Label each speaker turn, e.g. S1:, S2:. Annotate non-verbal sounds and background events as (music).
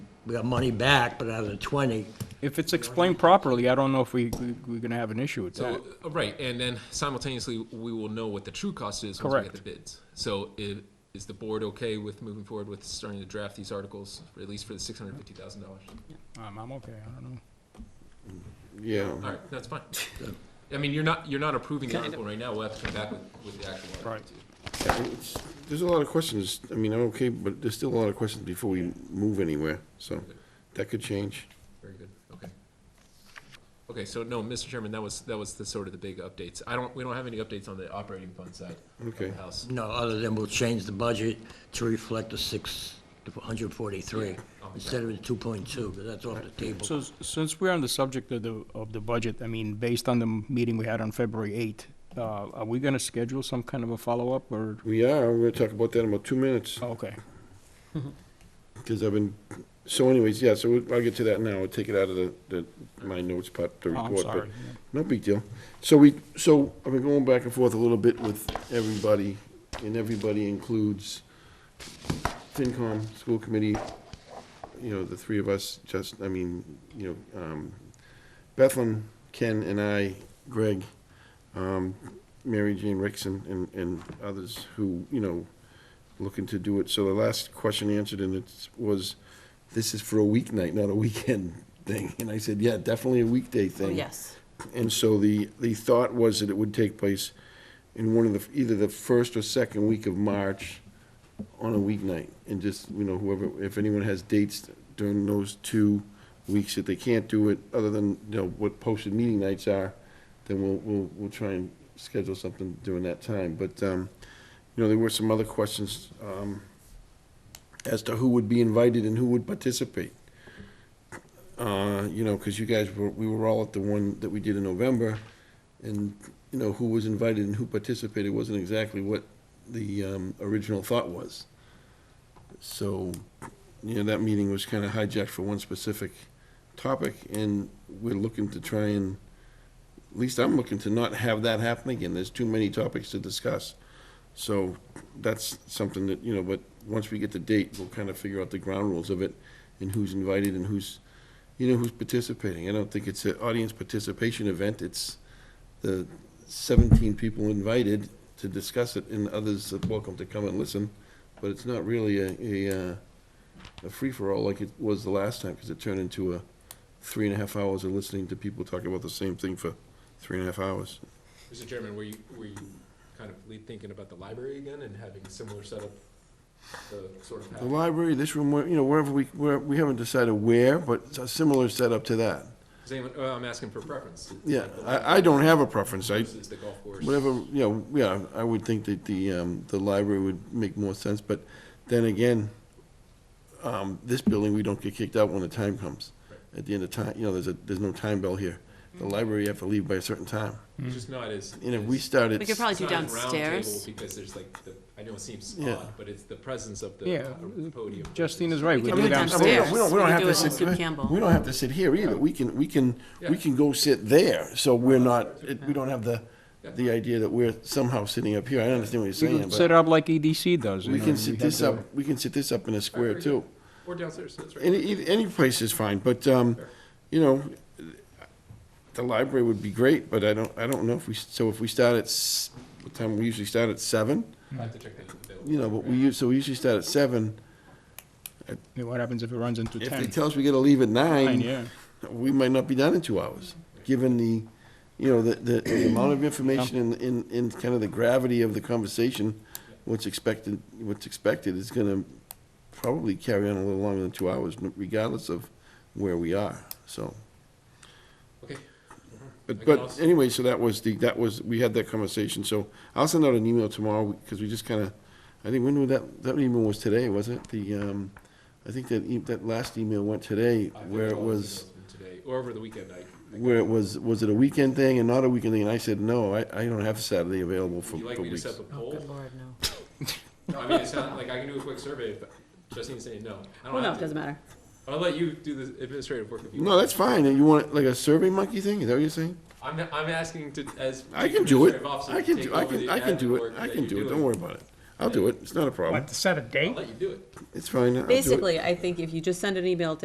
S1: we got money back, but out of the twenty,
S2: If it's explained properly, I don't know if we, we- we're gonna have an issue with that.
S3: So, uh, right, and then simultaneously, we will know what the true cost is once we
S2: Correct.
S3: get the bids. So, i- is the board okay with moving forward with starting to draft these articles, at least for the six hundred fifty thousand dollars?
S2: Um, I'm okay, I don't know.
S4: Yeah.
S3: All right,
S2: (laughs)
S3: that's fine. I mean, you're not you're not approving the article right now. We'll have to come back with, with the actual article.
S2: Right.
S3: too.
S4: It's- There's a lot of questions. I mean, I'm okay, but there's still a lot of questions before we move anywhere, so that could change.
S3: Very good, okay. Okay, so no, Mr. Chairman, that was, that was the sort of the big updates. I don't, we don't have any updates on the operating fund side of the
S4: Okay.
S3: house.
S1: no, other than we'll change the budget to reflect the six, the hundred forty-three, instead of the two point two, because that's off the table.
S2: So, s- since we're on the subject of the, of the budget, I mean, based on the m- meeting we had on February eighth, uh, are we gonna schedule some kind of a follow-up or,
S4: We are, we're gonna talk about that in about two minutes,
S2: Oh, okay,
S4: because I've been, so anyways, yeah, so we- I'll get to that now. I'll take it out of the, the, my notes part, the
S2: Oh,
S4: report.
S2: I'm
S4: but
S2: sorry.
S4: No big deal. So we, so I've been going back and forth a little bit with everybody, and everybody includes FinCom, school committee, you know, the three of us, just, I mean, you know, um, Bethlehem, Ken and I, Greg, um, Mary Jane Rickson and, and others who, you know, looking to do it. So the last question answered and it was, this is for a weeknight, not a weekend (laughs) thing. And I said, yeah, definitely a weekday
S5: Oh,
S4: thing.
S5: yes.
S4: And so the, the thought was that it would take place in one of the, either the first or second week of March on a weeknight. And just, you know, whoever, if anyone has dates during those two weeks that they can't do it, other than, you know, what posted meeting nights are, then we'll, we'll, we'll try and schedule something during that time. But, um, you know, there were some other questions, um, as to who would be invited and who would participate uh, you know, because you guys were, we were all at the one that we did in November, and, you know, who was invited and who participated wasn't exactly what the um, original thought was. So, you know, that meeting was kind of hijacked for one specific topic, and we're looking to try and, at least I'm looking to not have that happen again. There's too many topics to discuss. So that's something that, you know, but once we get the date, we'll kind of figure out the ground rules of it and who's invited and who's, you know, who's participating. I don't think it's an audience participation event. It's the 17 people invited to discuss it and others are welcome to come and listen. But it's not really a, a, uh, a free-for-all like it was the last time because it turned into a three and a half hours of listening to people talk about the same thing for three and a half hours.
S3: Mr. Chairman, were you, were you kind of lead thinking about the library again and having similar setup? The sort of,
S4: The
S3: pattern?
S4: library, this room, where- you know, wherever we, where, we haven't decided where, but it's a similar setup to that.
S3: Does anyone, oh, I'm asking for preference.
S4: Yeah, I, I don't have a preference. I,
S3: Versus the golf course.
S4: whatever, you know, yeah, I would think that the, um, the library would make more sense, but then again, um, this building, we don't get kicked out when the time comes. At the end of time, you know, there's a, there's no time bell here. The library, you have to leave by a certain time.
S2: Mm.
S3: It's just not as.
S4: And if we started.
S5: We could probably
S3: it's
S5: do
S3: not as round
S5: downstairs.
S3: table Because there's like, the I know it seems
S4: Yeah.
S3: odd, but it's the presence of the
S2: Yeah,
S3: po- podium.
S2: Justine is right.
S5: We
S2: we go
S5: can do it
S4: I mean,
S2: downstairs.
S4: we don't-
S5: downstairs.
S4: We don't,
S5: We
S4: we don't
S5: can
S4: have
S5: do
S4: to
S5: it
S4: sit,
S5: on Sue Campbell.
S4: we don't have to sit here either. We can, we can, we can go sit there, so we're not, it- we don't have the, the idea that we're somehow sitting up here. I understand what you're
S2: We
S4: saying,
S2: can set
S4: but
S2: it up like EDC does. you
S4: we
S2: know,
S4: can sit
S2: have
S4: this
S2: to-
S4: up, we can sit this up in a
S3: Very
S4: square
S3: good.
S4: too.
S3: Or downstairs, that's right.
S4: Any, e- any place is fine, but, um, you know, the library would be great, but I don't, I don't know if we, so if we start at, s- what time, we usually start at seven?
S3: I have to check that available.
S4: You know, but we, use- so we usually start at seven.
S2: Yeah, What happens if it runs into
S4: If they
S2: ten?
S4: tell us we gotta leave at
S2: Nine,
S4: nine,
S2: yeah.
S4: we might not be done in two hours, given the, you know, the, the, the amount of information and, and, and kind of the gravity of the conversation, what's expected, what's expected is gonna probably carry on a little longer than two hours, regardless of where we are, so.
S3: Okay,
S4: But,
S3: can
S4: but
S3: also-
S4: anyway, so that was the, that was, we had that conversation, so I'll send out an email tomorrow, because we just kinda, I think, when was that, that email was today, was it? The, um, I think that, e- that last email went today,
S3: I think
S4: where it
S3: all those
S4: was.
S3: emails from Today, or over the weekend, I,
S4: where it was, was it a weekend thing and not a weekend thing? And I said, no, I, I don't have Saturday available for,
S3: would you like
S4: for
S3: me to
S4: weeks.
S3: set up a
S5: Oh,
S3: poll?
S5: good lord, no.
S3: No, I mean, it's not, like, I can do a quick survey, but Justine's saying no. I don't
S5: Well, no,
S3: have
S5: it
S3: to.
S5: doesn't matter.
S3: I'll let you do the administrative work if you
S4: No,
S3: want.
S4: that's fine. And you want like a survey monkey thing? Is that what you're saying?
S3: I'm, I'm asking to, as.
S4: I can do it.
S3: administrative officer,
S4: I can,
S3: take
S4: do. I
S3: over
S4: can,
S3: the
S4: I can do
S3: admin
S4: it.
S3: work
S4: I
S3: that
S4: can
S3: you're
S4: do it. Don't
S3: doing.
S4: worry about it. I'll do it. It's not a problem.
S6: What, to set a date?
S3: I'll let you do it.
S4: It's fine. I'll do it.
S5: Basically, I think if you just send an email to